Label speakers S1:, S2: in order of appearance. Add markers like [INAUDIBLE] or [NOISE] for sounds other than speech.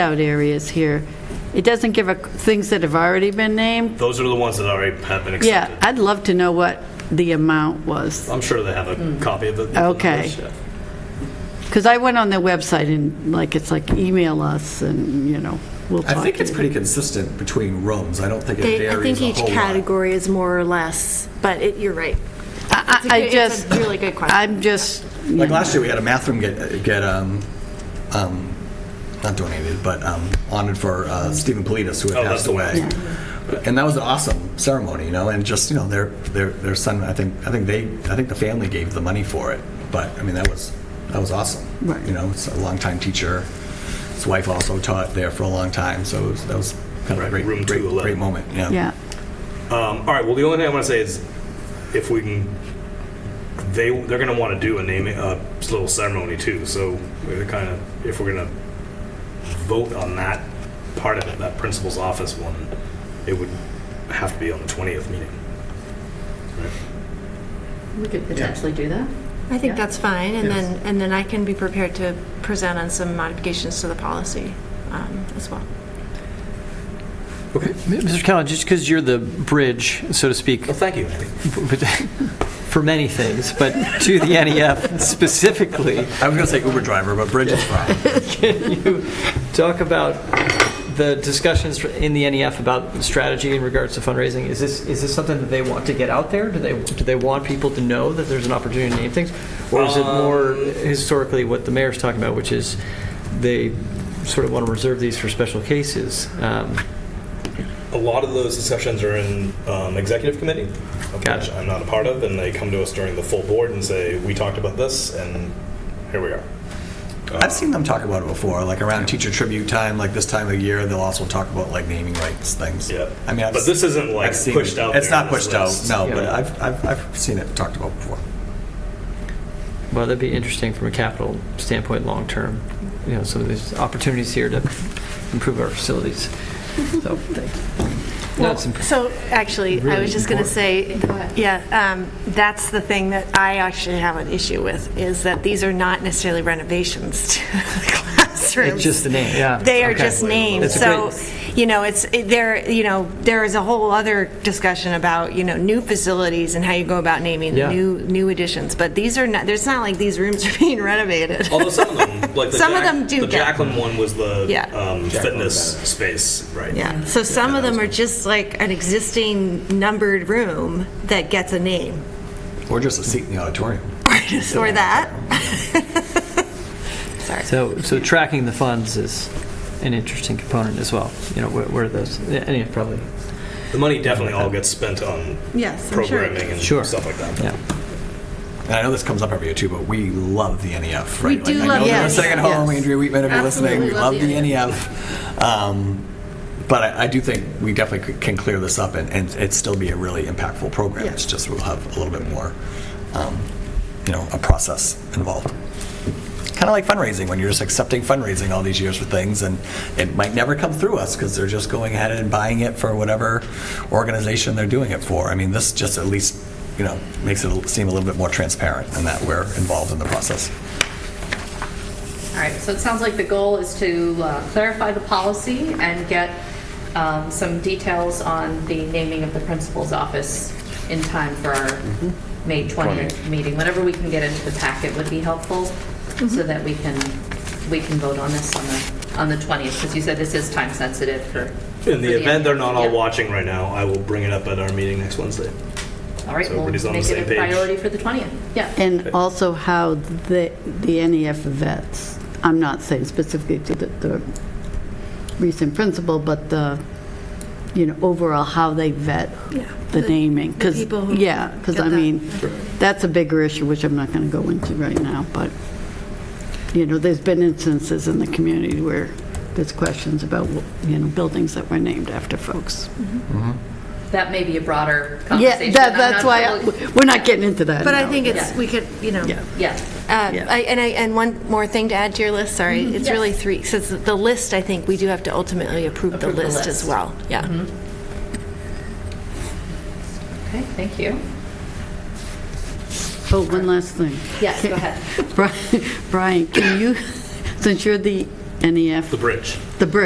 S1: out areas here. It doesn't give a- things that have already been named.
S2: Those are the ones that already have been
S1: Yeah,
S2: accepted.
S1: I'd love to know what the amount was,
S2: I'm sure they have a copy of it.
S1: Okay. because I went on their website and like, it's like, email us and, you know, we'll
S3: I
S1: talk.
S3: think
S1: to
S3: it's
S1: you.
S3: pretty consistent between rooms. I don't think it
S4: They,
S3: varies a
S4: I think each
S3: whole lot.
S4: category is more or less, but it, you're right.
S1: I-
S4: It's a
S1: I I
S4: good- it's a
S1: just.
S4: really good question.
S1: I'm just,
S3: Like last year, we had a math room get, get um, um, not donated, but um, honored for uh, Stephen Politis, who had
S2: Oh, that's
S3: passed
S2: the one.
S3: away. And that was an awesome ceremony, you know, and just, you know, their, their, their son, I think, I think they, I think the family gave the money for it. But, I mean, that was, that was awesome.
S1: Right.
S3: You know, it's a longtime teacher. His wife also taught there for a long time, so it was, that was kind of a
S2: Right,
S3: great,
S2: room
S3: great,
S2: 211.
S3: great moment, yeah.
S1: yeah,
S2: Um, all right. Well, the only thing I want to say is, if we can, they they're going to want to do a naming a little ceremony too. So we're kind of if we're going to vote on that part of it, that principal's office one, it would have to be on the twentieth meeting.
S5: We could potentially do that.
S4: I think that's fine, and
S3: Yes.
S4: then, and then I can be prepared to present on some modifications to the policy um, as well.
S6: Mr. Callen, just because you're the bridge, so to speak,
S2: Well, thank you, Andy.
S6: but- for many things, but to the NEF specifically,
S3: I was going to say Uber driver, but
S4: [LAUGHS]
S3: Bridget's problem.
S6: talk about the discussions in the NEF about strategy in regards to fundraising. Is this, is this something that they want to get out there? Do they, do they want people to know that there's an opportunity to name things? Or is it more historically what the mayor's talking about, which is they sort of want to reserve these for special cases? Um,
S2: A lot of those discussions are in um, executive committee, of
S6: Got
S2: which
S6: it.
S2: I'm not a part of, and they come to us during the full board and say, "We talked about this, and here we are."
S3: I've seen them talk about it before, like around teacher tribute time, like this time of year, they'll also talk about like naming rights things.
S2: Yeah.
S3: I mean, I've,
S2: But this isn't, like,
S3: I've seen
S2: pushed
S3: it.
S2: out
S3: It's
S2: there
S3: not
S2: on this
S3: pushed out,
S2: list.
S3: no. But
S6: Yeah.
S3: I've, I've I've seen it talked about before.
S6: Well, that'd be interesting from a capital standpoint, long-term, you know, some of these opportunities here to improve our facilities. So, thanks. No, it's imp-
S4: So, actually, I
S6: Really
S4: was just going to say, yeah, um, that's the thing that I actually have an issue with, is that these are not necessarily renovations to [LAUGHS] the classrooms.
S6: It's just the name, yeah.
S4: They are
S6: Okay.
S4: just names.
S6: It's a
S4: So,
S6: great-
S4: you know, it's, it- there, you know, there is a whole other discussion about, you know, new facilities and how you go about naming
S6: Yeah.
S4: new, new additions. But these are not, there's not like these rooms [LAUGHS] are being renovated.
S2: Although some of [LAUGHS] them, like the
S4: Some of
S2: Jack-
S4: them do
S2: The
S4: get-
S2: Jacqueline one was the
S4: Yeah.
S2: um, fitness space, right?
S4: Yeah, so some of them are just like an existing numbered room that gets a name,
S3: Or just a seat in the auditorium.
S4: or that.
S6: So, so tracking the funds is an interesting component as well, you know, where- where those, any, probably,
S2: The money definitely all gets spent on
S4: Yes, I'm sure it
S2: programming and
S6: Sure.
S2: stuff like that.
S6: yeah.
S3: And I know this comes up every year too, but we love the NEF, right?
S1: do
S3: I
S1: love
S3: know
S1: the
S3: you're
S1: NEF,
S3: Second home,
S1: yes.
S3: Andrea Wheatman, if you're listening, we
S5: Absolutely
S3: love the NEF. Um, But I, I do think we definitely c- can clear this up and, and it still be a really impactful program. It's just we'll have a little bit more, um, you know, a process involved. Kind of like fundraising, when you're just accepting fundraising all these years for things, and it might never come through us because they're just going ahead and buying it for whatever organization they're doing it for. I mean, this just at least, you know, makes it seem a little bit more transparent in that we're involved in the process.
S5: All right, so it sounds like the goal is to uh, clarify the policy and get um, some details on the naming of the principal's office in time for our
S2: Mm-hmm.
S5: May 20th meeting. Whenever we can get into the packet would be helpful,
S1: Mm-hmm.
S5: so that we can, we can vote on this on the, on the 20th, because you said this is time sensitive for. for
S2: In the event they're not all
S5: Yeah.
S2: watching right now, I will bring it up at our meeting next Wednesday.
S5: All right,
S2: so
S5: we'll
S2: everybody's on the
S5: make
S2: same
S5: it a
S2: page.
S5: priority for the 20th, yeah.
S1: and also how the, the NEF vets, I'm not saying specifically to the, the recent principal, but the, you know, overall, how they vet
S4: Yeah.
S1: the
S4: The-
S1: naming. 'cause-
S4: the people who
S1: Yeah, because
S4: get
S1: I
S4: that.
S1: mean, that's a bigger issue, which I'm not going to go into right now, but, you know, there's been instances in the community where there's questions about, you know, buildings that were named after folks.
S5: That may be a broader
S1: Yeah,
S5: conversation.
S1: that-
S5: I'm
S1: that's
S5: not
S1: why,
S5: totally-
S1: I- we're not getting into that
S4: But I
S1: now.
S4: think it's,
S5: Yeah.
S4: we could, you know.
S1: Yeah.
S5: Yeah.
S4: Uh,
S1: Yeah.
S4: I- And I, and one more thing to add to your list, sorry. It's
S5: Yes.
S4: really three, since the list, I think, we do have to ultimately approve the
S5: Approve the
S4: list as
S5: list.
S4: well. Yeah.
S5: Okay, thank you.
S1: Oh, one last thing.
S5: Yes, go ahead.
S1: Bri- Brian, can you, since you're the E NEF
S2: The bridge.